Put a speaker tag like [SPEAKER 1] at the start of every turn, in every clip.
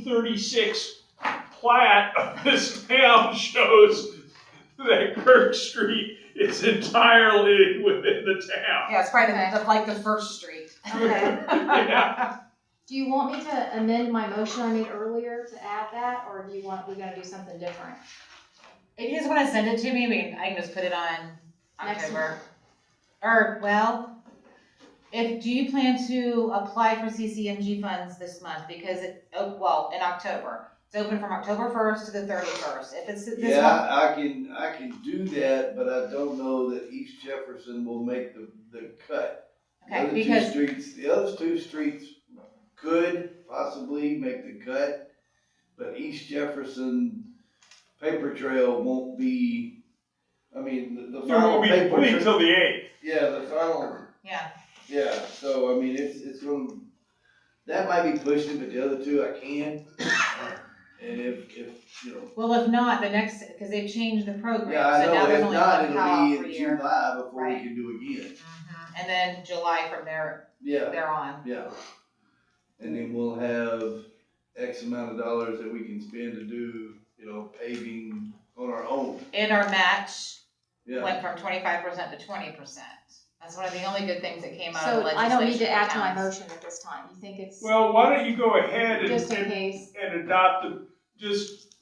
[SPEAKER 1] 1836 plat of this town shows that Kirk Street is entirely within the town.
[SPEAKER 2] Yeah, it's probably the- the, like the first street.
[SPEAKER 3] Okay.
[SPEAKER 1] Yeah.
[SPEAKER 3] Do you want me to amend my motion I made earlier to add that, or do you want, we gotta do something different?
[SPEAKER 4] If you just wanna send it to me, we can, I can just put it on
[SPEAKER 3] Next
[SPEAKER 4] October. Or, well, if, do you plan to apply for CCMG funds this month? Because it, oh, well, in October. It's open from October first to the thirty-first. If it's this
[SPEAKER 5] Yeah,
[SPEAKER 4] month,
[SPEAKER 5] I I can, I can do that, but I don't know that East Jefferson will make the, the cut. The
[SPEAKER 4] okay,
[SPEAKER 5] other two
[SPEAKER 4] because,
[SPEAKER 5] Streets, the other two streets could possibly make the cut, but East Jefferson paper trail won't be, I mean, the, the
[SPEAKER 1] It
[SPEAKER 5] final
[SPEAKER 1] won't be
[SPEAKER 5] paper.
[SPEAKER 1] complete
[SPEAKER 5] trail-
[SPEAKER 1] till the 8th.
[SPEAKER 5] Yeah, the final,
[SPEAKER 4] yeah,
[SPEAKER 5] yeah, so I mean, it's, it's gonna, that might be pushing, but the other two I can. And if, if, you know,
[SPEAKER 4] well, if not, the next, cause they've changed the program,
[SPEAKER 5] Yeah, I
[SPEAKER 4] so now
[SPEAKER 5] know,
[SPEAKER 4] there's
[SPEAKER 5] if
[SPEAKER 4] only
[SPEAKER 5] not,
[SPEAKER 4] one
[SPEAKER 5] it'll
[SPEAKER 4] cutoff
[SPEAKER 5] be
[SPEAKER 4] per
[SPEAKER 5] in
[SPEAKER 4] year.
[SPEAKER 5] July before we
[SPEAKER 4] Right.
[SPEAKER 5] can do again,
[SPEAKER 4] Mhm. And then July from there,
[SPEAKER 5] yeah,
[SPEAKER 4] there on.
[SPEAKER 5] yeah. And then we'll have X amount of dollars that we can spend to do, you know, paving on our own,
[SPEAKER 4] And our match
[SPEAKER 5] yeah.
[SPEAKER 4] went from twenty-five percent to twenty percent. That's one of the only good things that came out of
[SPEAKER 3] So
[SPEAKER 4] legislation.
[SPEAKER 3] I don't need to add to my
[SPEAKER 4] for towns.
[SPEAKER 3] motion at this time, you think it's,
[SPEAKER 1] Well, why don't you go ahead and,
[SPEAKER 3] just in
[SPEAKER 1] and,
[SPEAKER 3] case,
[SPEAKER 1] and adopt the, just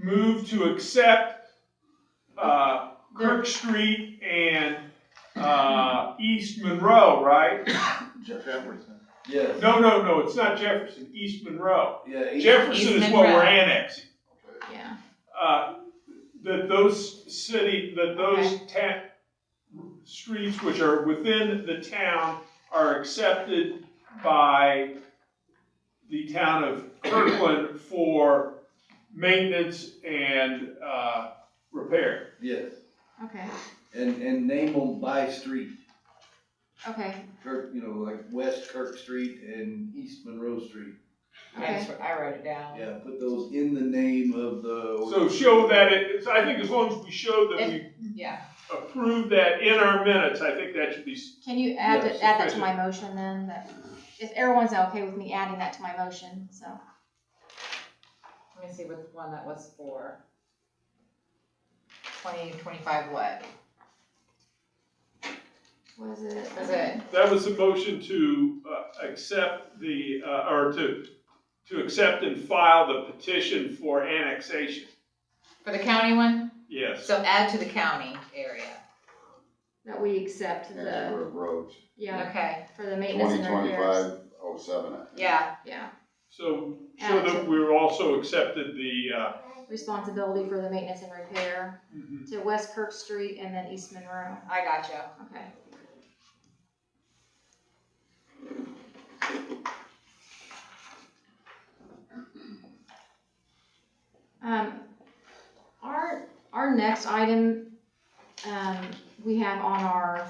[SPEAKER 1] move to accept uh, Kirk Street and uh, East Monroe, right?
[SPEAKER 6] Jefferson.
[SPEAKER 5] Yeah,
[SPEAKER 1] No, no, no, it's not Jefferson, East Monroe.
[SPEAKER 5] yeah, each-
[SPEAKER 1] Jefferson is what we're
[SPEAKER 4] Monroe.
[SPEAKER 1] annexing.
[SPEAKER 6] Okay.
[SPEAKER 3] yeah,
[SPEAKER 1] Uh, That those city, that those ta- streets which are within the town are accepted by the town of Kirkland for maintenance and, uh, repair.
[SPEAKER 5] yes,
[SPEAKER 3] okay,
[SPEAKER 5] and, and name them by street,
[SPEAKER 3] okay,
[SPEAKER 5] Kirk, you know, like West Kirk Street and East Monroe Street.
[SPEAKER 4] I
[SPEAKER 3] okay.
[SPEAKER 4] just, I wrote it down.
[SPEAKER 5] Yeah, put those in the name of the.
[SPEAKER 1] So show that it, it's- I think as long as we show that we
[SPEAKER 4] Yeah,
[SPEAKER 1] approve that in our minutes, I think that should be, s-
[SPEAKER 3] Can you add,
[SPEAKER 5] Yes,
[SPEAKER 3] it- add that to my motion then, that, if everyone's okay with me adding that to my motion, so.
[SPEAKER 4] let me see what one that was for. Twenty, twenty-five what?
[SPEAKER 3] Was it?
[SPEAKER 4] Was it,
[SPEAKER 1] that was the motion to, uh, accept the, uh, or to, to accept and file the petition for annexation.
[SPEAKER 4] for the county one?
[SPEAKER 1] Yes.
[SPEAKER 4] So add to the county area.
[SPEAKER 3] That we accept
[SPEAKER 6] That's
[SPEAKER 3] the,
[SPEAKER 6] where it rose.
[SPEAKER 3] yeah,
[SPEAKER 4] Okay,
[SPEAKER 3] for the maintenance
[SPEAKER 6] Twenty
[SPEAKER 3] and repairs,
[SPEAKER 6] twenty-five oh seven.
[SPEAKER 4] yeah,
[SPEAKER 3] yeah,
[SPEAKER 1] So, so that we're also accepted the, uh,
[SPEAKER 3] responsibility for the maintenance and repair to West Kirk Street and then East Monroe,
[SPEAKER 4] I got you.
[SPEAKER 3] okay. Um, our, our next item, um, we have on our,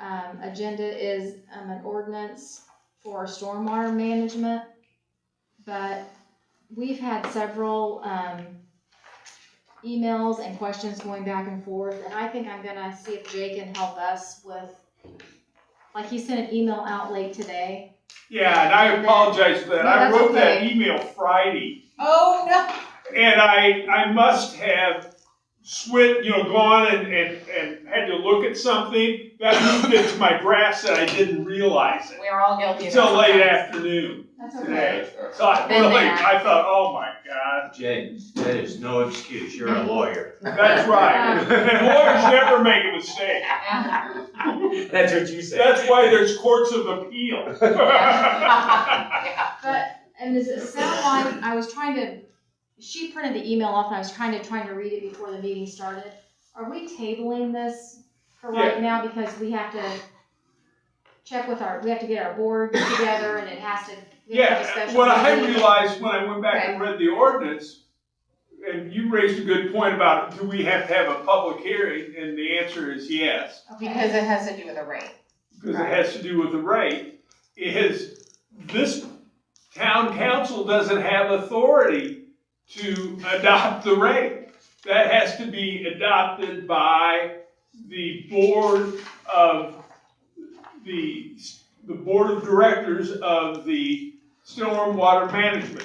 [SPEAKER 3] um, agenda is, um, an ordinance for stormwater management. But we've had several, um, emails and questions going back and forth, and I think I'm gonna see if Jay can help us with, like, he sent an email out late today.
[SPEAKER 1] yeah, and I apologize for that.
[SPEAKER 3] No,
[SPEAKER 1] I
[SPEAKER 3] that's
[SPEAKER 1] wrote that
[SPEAKER 3] okay.
[SPEAKER 1] email Friday
[SPEAKER 4] Oh, no.
[SPEAKER 1] and I, I must have swit, you know, gone and, and, and had to look at something. That moved into my grasp and I didn't realize it
[SPEAKER 4] We are all guilty of that.
[SPEAKER 1] until late
[SPEAKER 4] sometimes.
[SPEAKER 1] afternoon
[SPEAKER 3] That's
[SPEAKER 1] today. So
[SPEAKER 6] Sorry.
[SPEAKER 1] I really, I thought, oh my God,
[SPEAKER 7] Jay, that is no excuse, you're a lawyer.
[SPEAKER 1] that's right. And lawyers never make a mistake.
[SPEAKER 4] Yeah.
[SPEAKER 7] That's what you
[SPEAKER 1] That's why there's courts of appeal.
[SPEAKER 4] Yeah.
[SPEAKER 3] But, and does it sound like, I was trying to, she printed the email off and I was trying to, trying to read it before the meeting started. Are we tabling this for right now because we have to check with our, we have to get our board together and it has to. we have to have a
[SPEAKER 1] Yeah,
[SPEAKER 3] special
[SPEAKER 1] what I
[SPEAKER 3] meeting?
[SPEAKER 1] realized when I went back and read the ordinance, and you raised a good point about, do we have to have a public hearing? And the answer is yes,
[SPEAKER 4] Because it has to do with the rate.
[SPEAKER 1] because it has to do with the rate, is this town council doesn't have authority to adopt the rate. That has to be adopted by the board of the, the board of directors of the stormwater management.